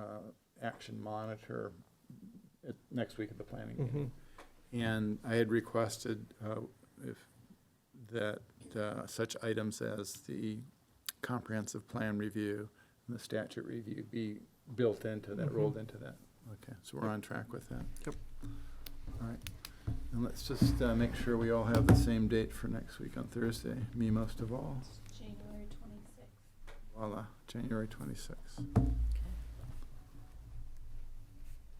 uh, action monitor at, next week at the Mm. planning meeting. And I had requested, uh, if, that, uh, such items as the comprehensive plan review and the statute review be built into that, rolled into that. Okay, so we're on track with that. Yep. All right, and let's just, uh, make sure we all have the same date for next week on Thursday, me most of all. January twenty-sixth. Voila, January twenty-sixth,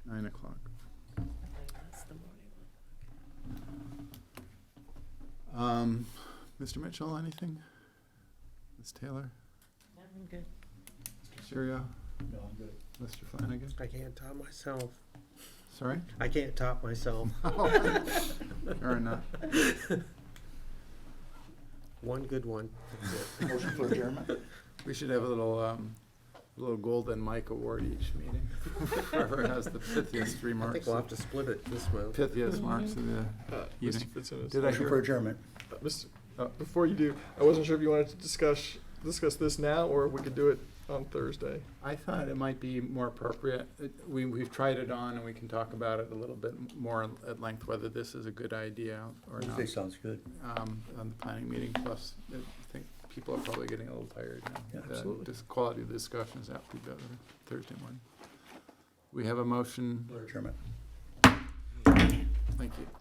nine o'clock. Um, Mr. Mitchell, anything? Ms. Taylor? I'm good. Mr. Serio? No, I'm good. Mr. Flanagan? I can't top myself. Sorry? I can't top myself. Fair enough. One good one. Motion for adjournment? We should have a little, um, little golden mic award each meeting. Whoever has the pithiest I think remarks, we'll have to split it this way. pithiest marks of the Uh, Mr. evening. Fitzsimmons, Did I Motion for hear? adjournment. uh, Mr. Oh. Before you do, I wasn't sure if you wanted to discuss discuss this now or we could do it on Thursday. I thought it might be more appropriate, it- we, we've tried it on and we can talk about it a little bit more at length, whether this is a good idea or not. Thursday sounds good. um, on the planning meeting, plus I think people are probably getting a little tired now. Yeah, The absolutely. dis- quality of the discussion is apt to be better Thursday morning. We have a motion, For adjournment. thank you.